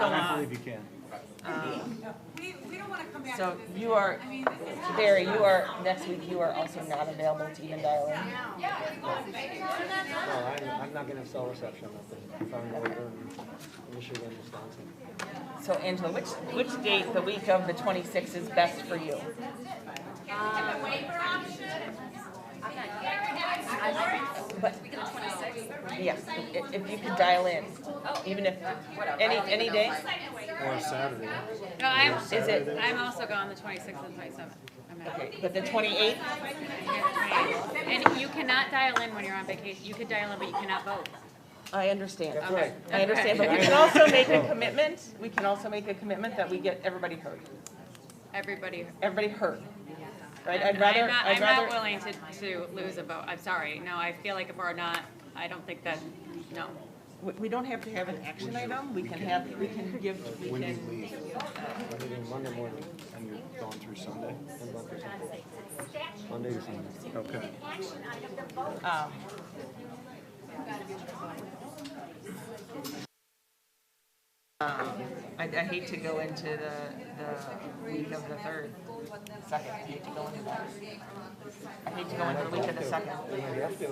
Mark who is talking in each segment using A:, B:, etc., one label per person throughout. A: Uh,
B: Only if you can.
C: We, we don't wanna come back to
A: So
C: this
A: you are,
C: again. I mean, this is.
A: Barry, you are, next week, you are also not available to even dial in.
D: Oh, I'm, I'm not gonna have cell reception up there. If I'm over in Michigan, Wisconsin.
A: So Angela, which, which date, the week of the twenty-sixth is best for you? But, yes, i- if you could dial in, even if, any, any day?
D: Or Saturday.
E: No, I'm,
A: Is it,
E: I'm also gone the twenty-sixth and twenty-seventh. I'm out.
A: okay, but the twenty-eighth,
E: And you cannot dial in when you're on vacation. You could dial in, but you cannot vote.
A: I understand.
D: That's right.
A: I understand, but we can also make a commitment, we can also make a commitment that we get everybody heard,
E: Everybody.
A: everybody heard. Right,
E: I'm
A: I'd rather,
E: not-
A: I'd
E: I'm not
A: rather,
E: willing to, to lose a vote. I'm sorry. No, I feel like if we're not, I don't think that, no.
A: we, we don't have to have an action item, we can have, we can give, we
B: When do you
A: can,
B: leave?
D: I'm leaving Monday morning.
B: And you're going through Sunday?
D: I'm going to- Monday to Sunday.
B: Okay.
A: um, um, I, I hate to go into the, the week of the third, second, I hate to go into that. I hate to go into the week of the second.
D: You have to.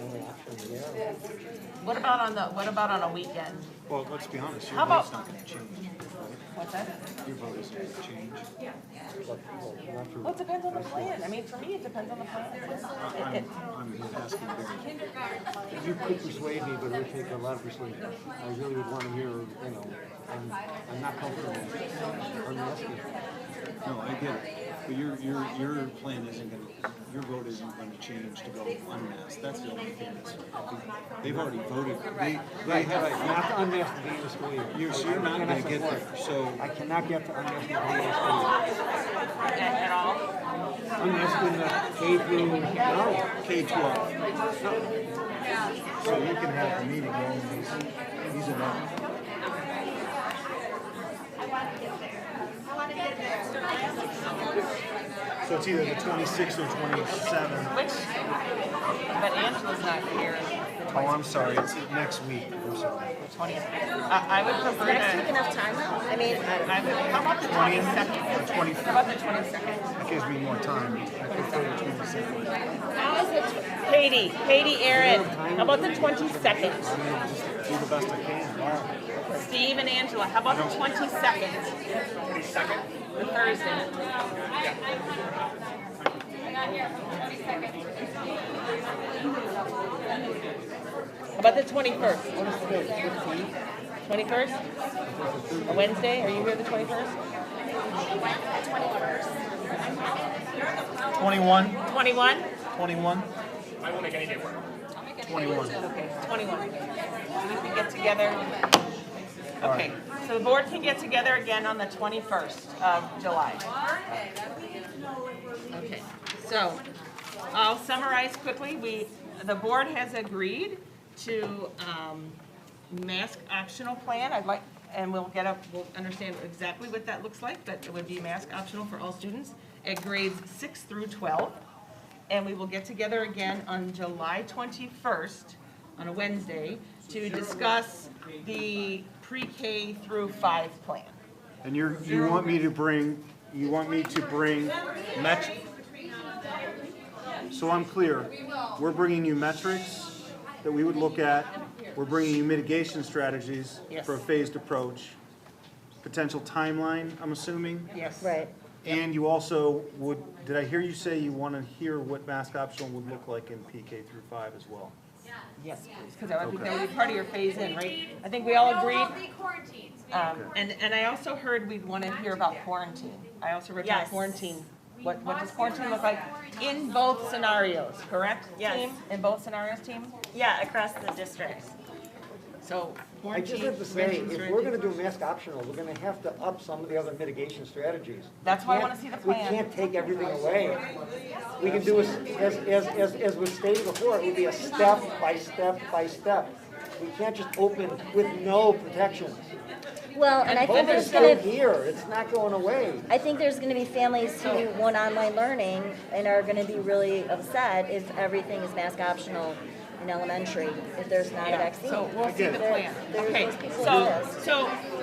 D: Only option, yeah.
A: What about on the, what about on a weekend?
B: Well, let's be honest, your
A: How
B: vote's
A: about-
B: not gonna change.
A: What's that?
B: Your vote is not gonna change.
D: But, well, not for-
A: Well, it depends on the plan. I mean, for me, it depends on the plan. It-
B: I'm,
A: it-
B: I'm asking Barry.
D: You could persuade me, but it would take a lot of persuasion. I really would want to hear, you know, I'm, I'm not comfortable. I'm asking.
B: No, I get it. But your, your, your plan isn't gonna, your vote isn't gonna change to go unmasked. That's the only thing that's, they've already voted. They, they have,
D: Not to unmask the Venus Williams.
B: you're, so you're not gonna get there. So
D: I cannot get to unmask the Venus
A: At at all?
D: Williams. Unmask in the K through, no.
B: K twelve. So you can have a meeting, all these, these are not.
F: So it's either the twenty-sixth or twenty-seventh.
A: Which, but Angela's not here
B: Oh, I'm sorry, it's next week, I'm sorry.
A: the twentieth. I, I would prefer to. Next week enough time though? I mean. I would, how about the twenty-second?
B: The twenty,
A: How about the twenty-second?
B: that gives me more time. I prefer the twenty-second.
A: Katie, Katie, Aaron, how about the twenty-second?
B: Do the best I can.
A: Steve and Angela, how about the twenty-second? Twenty-second? The Thursday. How about the twenty-first? Twenty-first? A Wednesday, are you here the twenty-first?
F: Twenty-one,
A: Twenty-one?
F: twenty-one?
B: Twenty-one.
A: Okay, twenty-one. We can get together. Okay, so the board can get together again on the twenty-first of July. Okay, so I'll summarize quickly. We, the board has agreed to, um, mask optional plan. I'd like, and we'll get up, we'll understand exactly what that looks like, but it would be mask optional for all students at grades six through twelve. And we will get together again on July twenty-first, on a Wednesday, to discuss the pre-K through five plan.
F: And you're, you want me to bring, you want me to bring met? So I'm clear. We're bringing you metrics that we would look at. We're bringing you mitigation strategies
A: Yes.
F: for a phased approach. Potential timeline, I'm assuming.
A: Yes.
G: Right.
F: And you also would, did I hear you say you want to hear what mask optional would look like in PK through five as well?
A: Yes, please, because I think that would be part of your phase-in, right? I think we all agreed.
C: We'll be quarantined.
A: Um, and, and I also heard we'd want to hear about quarantine. I also read about
G: Yes.
A: quarantine. What, what does quarantine look like in both scenarios, correct?
G: Yes.
A: team? In both scenarios, team?
G: Yeah, across the district.
A: So
D: I
A: quarantine.
D: just have to say,
A: restrictions,
D: if we're gonna do mask optional, we're gonna have to up some of the other mitigation strategies.
A: That's why I wanna
D: Can't-
A: see the
D: We
A: plan.
D: can't take everything away. We can do, a s- as, as, as, as was stated before, it would be a step by step by step. We can't just open with no protections.
G: Well, and I think
D: COVID's
G: there's
D: still
G: gonna,
D: here, it's not going away.
G: I think there's gonna be families who want online learning and are gonna be really upset if everything is mask optional in elementary, if there's not a
A: Yeah,
G: vaccine.
A: So we'll see the
G: There-
A: plan.
G: there's
A: Okay,
G: those people who
A: so,
G: exist.
A: so